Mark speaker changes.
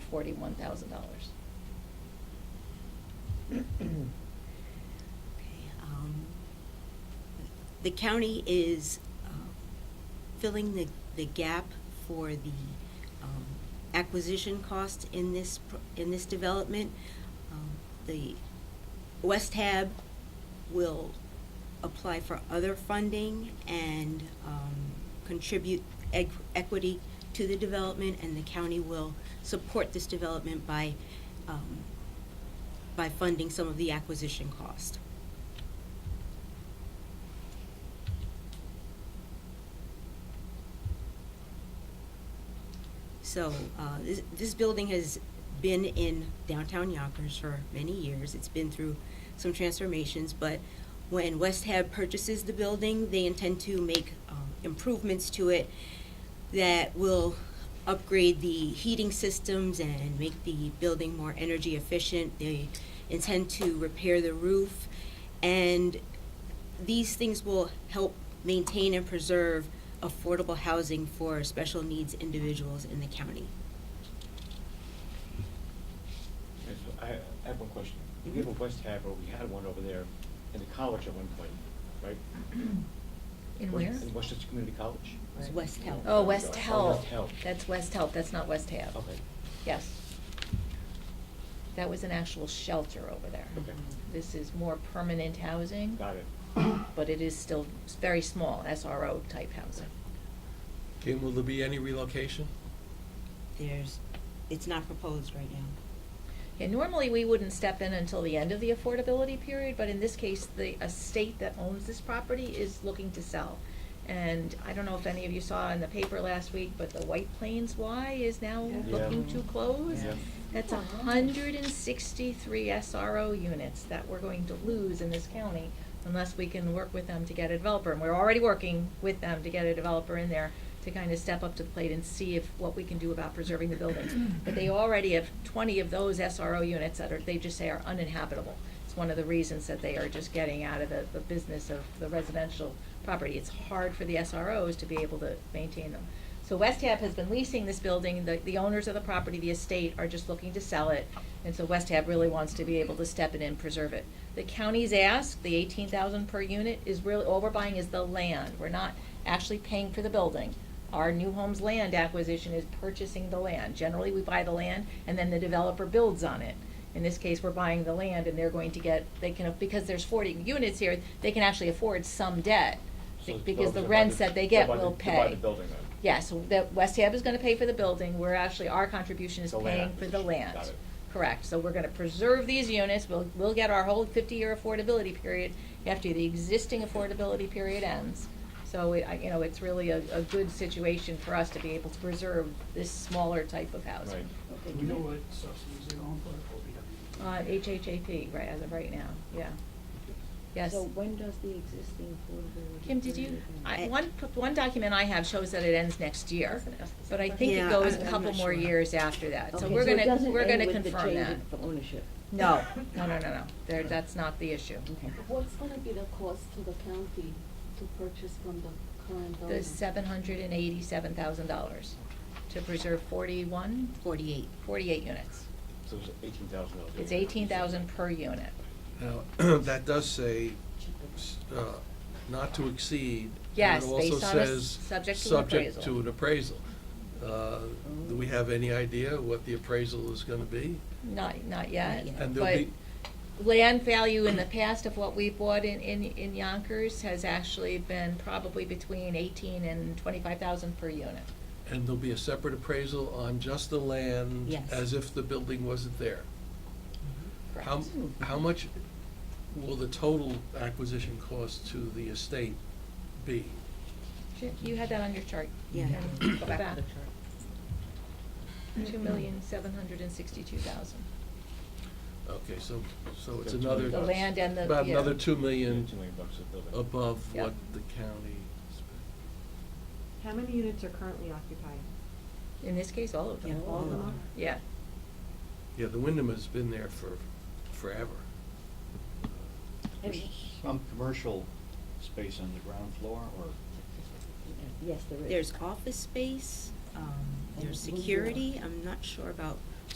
Speaker 1: forty-one thousand dollars.
Speaker 2: Um, The county is uh, filling the, the gap for the um, acquisition costs in this, pr- in this development. Um, The West Hab will apply for other funding and um, contribute equ- equity to the development, and the county will support this development by, um, by funding some of the acquisition cost. So, uh, this, this building has been in downtown Yonkers for many years. It's been through some transformations, but when West Hab purchases the building, they intend to make, um, improvements to it that will upgrade the heating systems and make the building more energy efficient. They intend to repair the roof and these things will help maintain and preserve affordable housing for special needs individuals in the county.
Speaker 3: Yes, I I have one question. We have a West Haver, we had one over there in the college at one point, right?
Speaker 1: In
Speaker 3: Was-
Speaker 1: where?
Speaker 3: In Westchester Community College.
Speaker 2: It's West Health.
Speaker 1: Oh, West
Speaker 3: Oh,
Speaker 1: Health.
Speaker 3: West Health.
Speaker 1: That's West Health, that's not West Half.
Speaker 3: Okay,
Speaker 1: Yes. That was an actual shelter over there.
Speaker 3: okay,
Speaker 1: This is more permanent housing,
Speaker 3: got it.
Speaker 1: but it is still s- very small, SRO type housing.
Speaker 4: Okay, will there be any relocation?
Speaker 2: There's, it's not proposed right now.
Speaker 1: Yeah, normally we wouldn't step in until the end of the affordability period, but in this case, the estate that owns this property is looking to sell. And I don't know if any of you saw in the paper last week, but the White Plains Y is now
Speaker 3: Yeah.
Speaker 1: looking
Speaker 3: Yeah.
Speaker 1: to close.
Speaker 3: Yeah.
Speaker 1: That's a hundred and sixty-three SRO units that we're going to lose in this county unless we can work with them to get a developer. And we're already working with them to get a developer in there to kind of step up to the plate and see if, what we can do about preserving the buildings. But they already have twenty of those SRO units that are, they just say are uninhabitable. It's one of the reasons that they are just getting out of the, the business of the residential property. It's hard for the SROs to be able to maintain them. So West Hab has been leasing this building, the, the owners of the property, the estate, are just looking to sell it, and so West Hab really wants to be able to step in and preserve it. The county's ask, the eighteen thousand per unit, is really, all we're buying is the land, we're not actually paying for the building. Our new homes land acquisition is purchasing the land, generally we buy the land, and then the developer builds on it. In this case, we're buying the land and they're going to get, they can, because there's forty units here, they can actually afford some debt,
Speaker 3: So it's
Speaker 1: because
Speaker 3: built-
Speaker 1: the
Speaker 3: they'll buy
Speaker 1: rents that they get
Speaker 3: they'll buy
Speaker 1: will
Speaker 3: the-
Speaker 1: pay.
Speaker 3: they'll buy the building then.
Speaker 1: Yeah, so that West Hab is gonna pay for the building, we're actually, our contribution is
Speaker 3: The land
Speaker 1: paying for the
Speaker 3: acquisition.
Speaker 1: land.
Speaker 3: Got it.
Speaker 1: Correct, so we're gonna preserve these units, we'll, we'll get our whole fifty-year affordability period after the existing affordability period ends. So it, I, you know, it's really a, a good situation for us to be able to preserve this smaller type of housing.
Speaker 5: Do we know what subsidies they're going for?
Speaker 1: Uh, HHAP, right, as of right now, yeah. Yes.
Speaker 6: So when does the existing affordability?
Speaker 1: Kim, did you,
Speaker 6: period end?
Speaker 1: I,
Speaker 2: I-
Speaker 1: one, one document I have shows that it ends next year, but I think it
Speaker 2: Yeah,
Speaker 1: goes
Speaker 2: I-
Speaker 1: a
Speaker 2: I'm
Speaker 1: couple
Speaker 2: not
Speaker 1: more
Speaker 2: sure.
Speaker 1: years after that, so
Speaker 6: Okay,
Speaker 1: we're
Speaker 6: it
Speaker 1: gonna,
Speaker 6: doesn't
Speaker 1: we're
Speaker 6: end
Speaker 1: gonna confirm that.
Speaker 6: with the change of Ownership.
Speaker 1: No, no, no, no, no, there, that's not the issue.
Speaker 6: Okay.
Speaker 7: What's gonna be the cost to the county to purchase from the current owner?
Speaker 1: The seven hundred and eighty-seven thousand dollars to preserve forty-one,
Speaker 2: Forty-eight.
Speaker 1: forty-eight units.
Speaker 3: So it's eighteen thousand dollars.
Speaker 1: It's eighteen thousand per unit.
Speaker 4: Now, that does say, s- uh, not to exceed. and
Speaker 1: Yes,
Speaker 4: it also
Speaker 1: based on a s-
Speaker 4: says
Speaker 1: subject to an appraisal.
Speaker 4: Subject to an appraisal. Uh, Do we have any idea what the appraisal is gonna be?
Speaker 1: Not, not yet,
Speaker 2: Not yet.
Speaker 4: And there'll
Speaker 1: but
Speaker 4: be,
Speaker 1: land value in the past of what we bought in, in, in Yonkers has actually been probably between eighteen and twenty-five thousand per unit.
Speaker 4: and there'll be a separate appraisal on just the land.
Speaker 2: Yes.
Speaker 4: As if the building wasn't there. How,
Speaker 1: Correct.
Speaker 4: how much will the total acquisition cost to the estate be?
Speaker 1: Sure, You had that on your chart.
Speaker 2: Yeah.
Speaker 1: Go back. Two million, seven hundred and sixty-two thousand.
Speaker 4: Okay, so, so
Speaker 3: About
Speaker 4: it's
Speaker 3: two
Speaker 4: another.
Speaker 3: million
Speaker 1: The
Speaker 3: bucks.
Speaker 1: land and the, yeah.
Speaker 4: About another two
Speaker 3: Two
Speaker 4: million
Speaker 3: million bucks a building.
Speaker 4: above
Speaker 1: Yeah.
Speaker 4: what the county spent.
Speaker 8: How many units are currently occupied?
Speaker 1: In this case, all of them.
Speaker 2: Yeah, all of them
Speaker 1: Yeah.
Speaker 4: Yeah, the Wyndham has been there for forever.
Speaker 6: And-
Speaker 9: There's some commercial space on the ground floor, or
Speaker 6: Yes, there is.
Speaker 2: There's office space, um,
Speaker 6: And
Speaker 2: there's
Speaker 6: one door.
Speaker 2: security, I'm not sure about